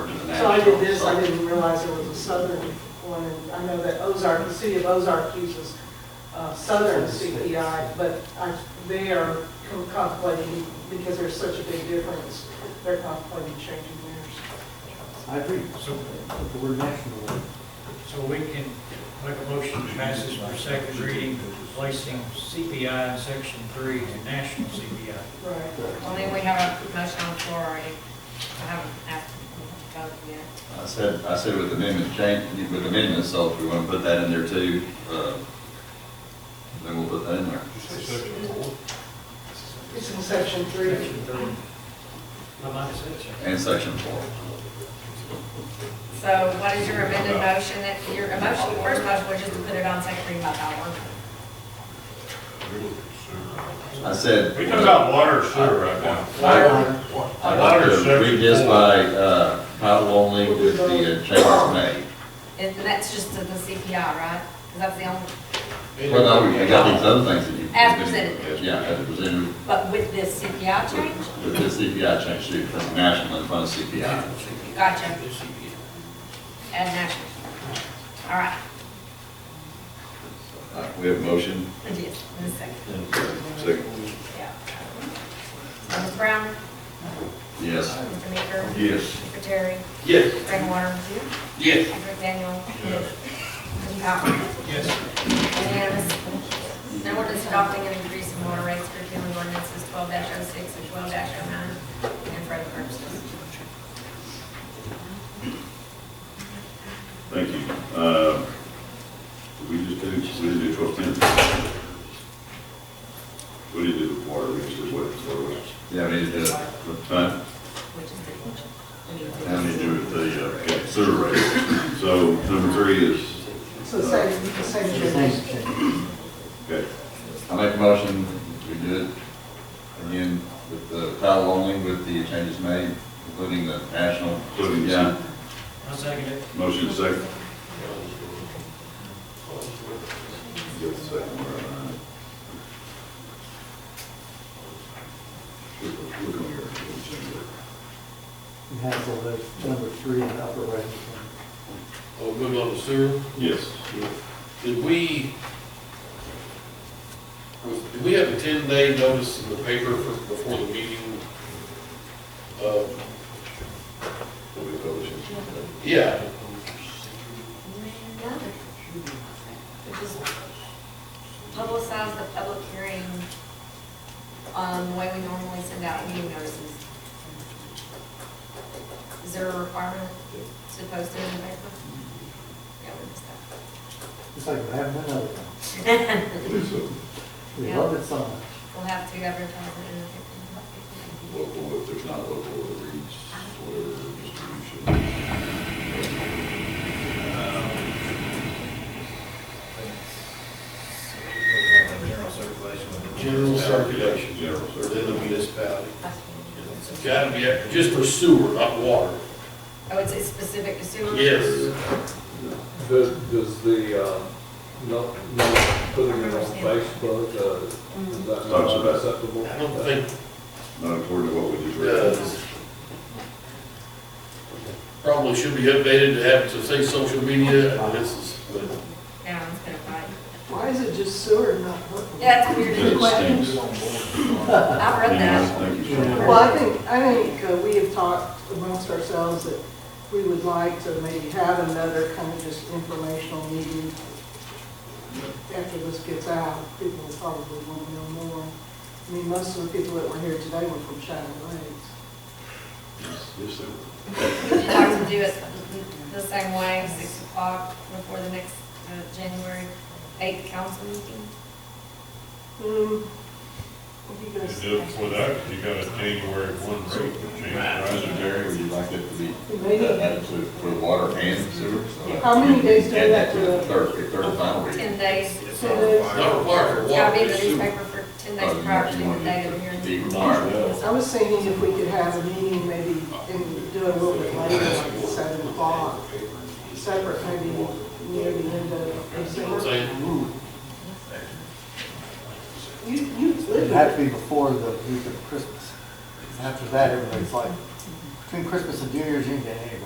So I did this, I didn't realize there was a southern one, and I know that Ozark, the city of Ozark uses uh, southern CPI, but I, they are com- contemplating, because there's such a big difference, they're contemplating changing theirs. I agree, So, but the word national. so we can make a motion to pass this for second reading, replacing CPI in section three to national CPI. Right. Only we have a motion on the floor already. I haven't asked to vote yet. I said, I said with amendment change, with amendments, so if we want to put that in there too, uh, then we'll put that in there. It's in section three. Section three. I might have said so. And section four. So what is your amended motion that, your emotion, first motion was just to put it on second reading by title only. I said. We talk about water or sewer right now. I- I'd like Water to read section this four. by, uh, title only with the uh, changes made. And that's just to the CPI, right? Because that's the only, Well, no, we got these other things that you. As presented. Yeah, as presented but with this CPI change? with the CPI change to from national in front of CPI. Gotcha. Add national. All right. All right, We have a motion. Yes, in a second, uh, Second. yeah. Mrs. Brown? Yes. Mr. Meeker? Yes. Mr. Terry? Yes. Frank Warner? Yes. Mr. Daniel? Yes. Mr. Powell? Yes. Unanimous. An ordinance adopting an increase in water rates for repealing ordinances twelve 6 and twelve 9 and for other purposes. Thank you. Uh, We just did, we didn't do twelve ten. We didn't do the water, we just did what, so what Yeah, we need to do it. time? Which is the How many do with the uh, okay, sewer rate? So number three is, It's the same, the same change. okay, I make a motion, we do it again with the title only with the changes made, including the national. Including the- Yeah. I second it. motion second. Give the second one, all right. Look look on here. You have all those number three in the upper right. Oh, good luck with sewer. Yes. Did we, was- did we have a ten-day notice in the paper for, before the meeting? Uh, What we publish it. Yeah, Which is publicize the public hearing, um, the way we normally send out meeting notices. Is there a requirement to post it in the paper? Yeah, we missed that. It's like we haven't done other things. I believe so. We Yeah. love it so much. We'll have to advertise it in the paper. local, if there's not local, it reads whatever distribution. General circulation. general circulation, General or then the circulation. municipality. I It's gotta be, just for sewer, not water. would say Oh, specific to sewer. Does, does the, uh, not, not putting it on Facebook, uh, is that Talks not about- acceptable? I don't think, Not according to what we just read. uh, probably should be updated to have to say social media, and this is, but Yeah, it's been a fight. Why is it just sewer and not work? Yeah, it's weird. It stinks. I've read Anyways, that. Thank you. sir. Well, I think, I think uh, we have talked amongst ourselves that we would like to maybe have another kind of just informational meeting. After this gets out, people will probably want to know more. I mean, most of the people that were here today were from Shadow Lakes. Yes, sir. Would you like to do it the same way, six o'clock before the next uh, January eighth council meeting? Hmm, what do you guys You do it before that, 'cause you got a January one rate change, Supervisor right? Jerry, would you like it to be Maybe, added to, for water and sewer? So How many days do add that the to- Third, the third and final reading. Ten days. so there's- not required for It's water. gotta be in the sewer. newspaper for ten Oh, days you prior want- to you the want date of the it to be hearing. required. I was thinking if we could have a meeting maybe and do it a little bit later, like at seven o'clock, separate maybe near the end of December. Say, You, you It'd live have in to be before the week of Christmas. After that, everybody's like, between Christmas and New Year's, you can get anywhere.